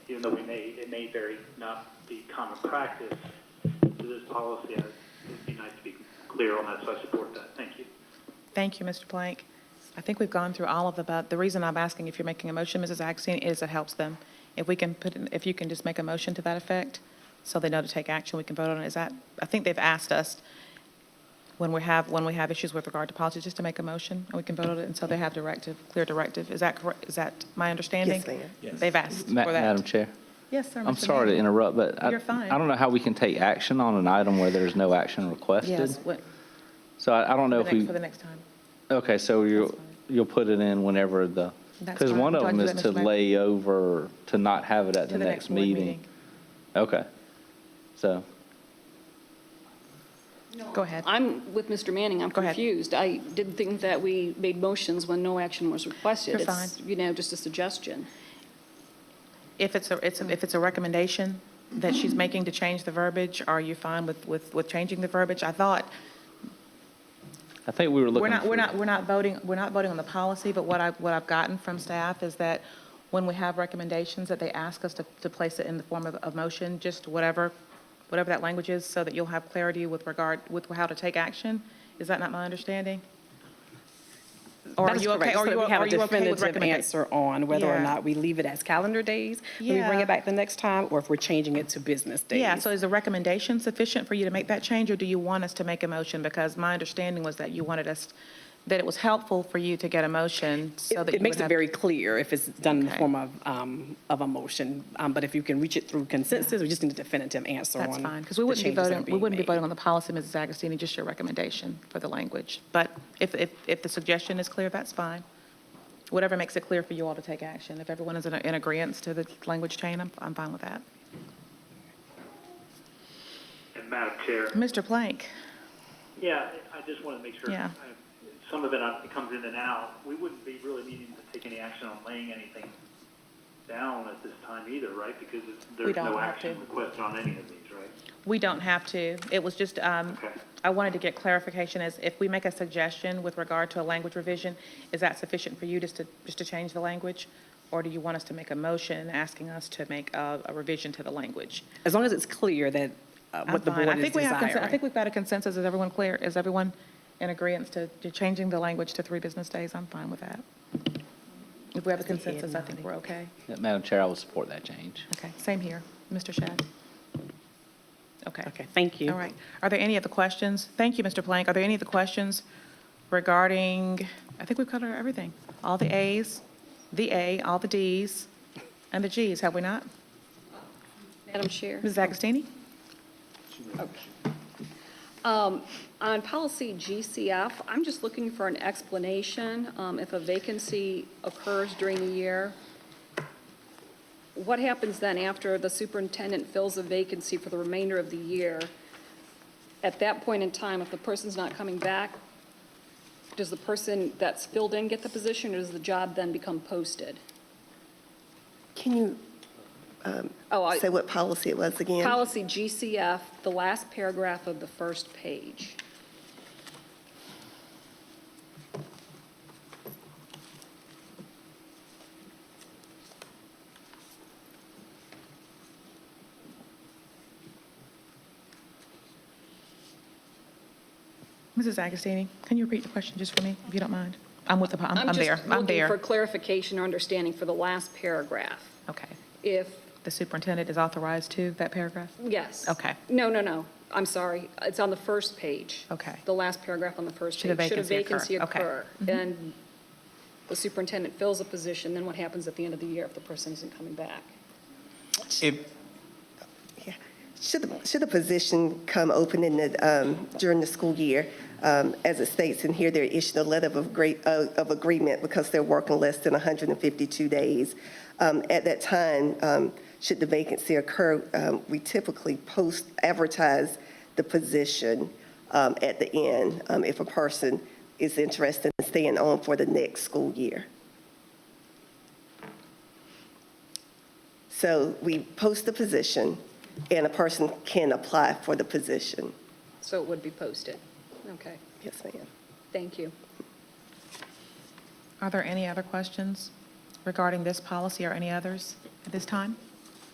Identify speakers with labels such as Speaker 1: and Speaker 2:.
Speaker 1: even though we may, it may very not be common practice to this policy, I- it'd be nice to be clear on that, so I support that. Thank you.
Speaker 2: Thank you, Mr. Blank. I think we've gone through all of the, but the reason I'm asking if you're making a motion, Mrs. Axie, is it helps them. If we can put, in- if you can just make a motion to that effect, so they know to take action, we can vote on it. Is that, I think they've asked us when we have, when we have issues with regard to policies, just to make a motion, and we can vote on it, and so they have directive, clear directive. Is that correct? Is that my understanding?
Speaker 3: Yes, ma'am.
Speaker 4: Yes.
Speaker 2: They've asked for
Speaker 5: Ma-
Speaker 2: that.
Speaker 5: Madam Chair,
Speaker 2: Yes, sir.
Speaker 5: I'm
Speaker 2: Mr.
Speaker 5: sorry to
Speaker 2: Blank.
Speaker 5: interrupt, but I,
Speaker 2: You're fine.
Speaker 5: I don't know how we can take action on an item where there's no action requested.
Speaker 2: Yes, what-
Speaker 5: So I, I don't know
Speaker 2: for
Speaker 5: if
Speaker 2: the next-
Speaker 5: we,
Speaker 2: for the next time.
Speaker 5: okay, so
Speaker 2: That's
Speaker 5: you'll,
Speaker 2: fine.
Speaker 5: you'll put it in whenever the,
Speaker 2: That's
Speaker 5: because
Speaker 2: fine.
Speaker 5: one of
Speaker 2: Do I
Speaker 5: them
Speaker 2: do
Speaker 5: is
Speaker 2: that,
Speaker 5: to
Speaker 2: Mr. Mayor?
Speaker 5: lay over, to not have it at
Speaker 2: To
Speaker 5: the next
Speaker 2: board
Speaker 5: meeting. Okay. So,
Speaker 2: Go ahead.
Speaker 6: I'm with Mr. Manning, I'm
Speaker 2: Go ahead.
Speaker 6: confused. I didn't think that we made motions when no action was requested.
Speaker 2: You're
Speaker 6: It's, You know, just a suggestion.
Speaker 2: If it's a, it's, a- if it's a recommendation that she's making to change the verbiage, are you fine with, with, with changing the verbiage? I thought,
Speaker 5: I think we were looking.
Speaker 2: we're not,
Speaker 5: for-
Speaker 2: we're not, we're not voting, we're not voting on the policy, but what I, what I've gotten from staff is that when we have recommendations, that they ask us to, to place it in the form of, of motion, just whatever, whatever that language is, so that you'll have clarity with regard, with how to take action. Is that not my understanding? Or
Speaker 3: That
Speaker 2: are
Speaker 3: is
Speaker 2: you okay?
Speaker 3: correct, so
Speaker 2: Or
Speaker 3: that
Speaker 2: you-
Speaker 3: we have
Speaker 2: are
Speaker 3: a
Speaker 2: you okay with
Speaker 3: definitive
Speaker 2: recommenda-
Speaker 3: answer on whether or
Speaker 2: Yeah.
Speaker 3: not we leave it as calendar days, and we bring
Speaker 2: Yeah.
Speaker 3: it back the next time, or if we're changing it to business days.
Speaker 2: Yeah, so is the recommendation sufficient for you to make that change, or do you want us to make a motion? Because my understanding was that you wanted us, that it was helpful for you to get a motion so that you
Speaker 3: It it
Speaker 2: would
Speaker 3: makes it
Speaker 2: have.
Speaker 3: very clear if it's done in the
Speaker 2: Okay.
Speaker 3: form of, um, of a motion, um, but if you can reach it through consensus, we just need a definitive answer on.
Speaker 2: That's fine, because we wouldn't be voting, we wouldn't be voting on the policy, Mrs. Agostini, just your recommendation for the language. But if, if, if the suggestion is clear, that's fine. Whatever makes it clear for you all to take action. If everyone is in, in agreeance to the language change, I'm, I'm fine with that.
Speaker 1: And Madam Chair.
Speaker 2: Mr. Plank,
Speaker 1: Yeah, I just want to make sure,
Speaker 2: Yeah.
Speaker 1: I- some of it uh, comes in and out. We wouldn't be really needing to take any action on laying anything down at this time either, right? Because it's- there's
Speaker 2: don't
Speaker 1: no
Speaker 2: have
Speaker 1: action
Speaker 2: to.
Speaker 1: requested on any of these, right?
Speaker 2: we don't have to, it was just, um,
Speaker 1: Okay.
Speaker 2: I wanted to get clarification as if we make a suggestion with regard to a language revision, is that sufficient for you just to, just to change the language? Or do you want us to make a motion asking us to make a, a revision to the language?
Speaker 3: As long as it's clear that, uh,
Speaker 2: I'm
Speaker 3: what the
Speaker 2: fine.
Speaker 3: board
Speaker 2: I
Speaker 3: is
Speaker 2: think we have consen- I think
Speaker 3: desiring.
Speaker 2: we've got a consensus. Is everyone clear? Is everyone in agreeance to, to changing the language to three business days? I'm fine with that. If we have a consensus, I think we're okay.
Speaker 5: Madam Chair, I would support that change.
Speaker 2: Okay, same here. Mr. Shad? Okay.
Speaker 3: Okay, thank you.
Speaker 2: All right. Are there any other questions? Thank you, Mr. Plank. Are there any other questions regarding, I think we've covered everything. All the As, the A, all the Ds, and the Gs, have we not?
Speaker 6: Madam Chair?
Speaker 2: Mrs. Agostini?
Speaker 6: Um, On policy GCF, I'm just looking for an explanation. um, If a vacancy occurs during the year, what happens then after the superintendent fills a vacancy for the remainder of the year? At that point in time, if the person's not coming back, does the person that's filled in get the position, or does the job then become posted?
Speaker 7: Can you
Speaker 6: Oh, I-
Speaker 7: say what policy it was again?
Speaker 6: policy GCF, the last paragraph of the first page.
Speaker 2: Mrs. Agostini, can you repeat the question just for me, if you don't mind? I'm with the, po- I'm I'm
Speaker 6: I'm
Speaker 2: there,
Speaker 6: just
Speaker 2: I'm
Speaker 6: looking for
Speaker 2: there.
Speaker 6: clarification or understanding for the last paragraph.
Speaker 2: Okay.
Speaker 6: If,
Speaker 2: The superintendent is authorized to, that paragraph?
Speaker 6: yes.
Speaker 2: Okay.
Speaker 6: No, no, no, I'm sorry. It's on the first page.
Speaker 2: Okay.
Speaker 6: The last paragraph on the first
Speaker 2: Should a
Speaker 6: page.
Speaker 2: vacancy occur. Mm-hmm.
Speaker 6: occur? And the superintendent fills a position, then what happens at the end of the year if the person isn't coming back?
Speaker 4: If,
Speaker 7: Yeah. Should, the- should the position come open in the, um, during the school year? um, As it states in here, they're issued a letter of great, of agreement because they're working less than 152 days. Um, At that time, um, should the vacancy occur, um, we typically post, advertise the position um, at the end um, if a person is interested in staying on for the next school year. So we post the position, and a person can apply for the position.
Speaker 6: So it would be posted. Okay,
Speaker 7: Yes, ma'am.
Speaker 6: thank you.
Speaker 2: Are there any other questions regarding this policy or any others at this time?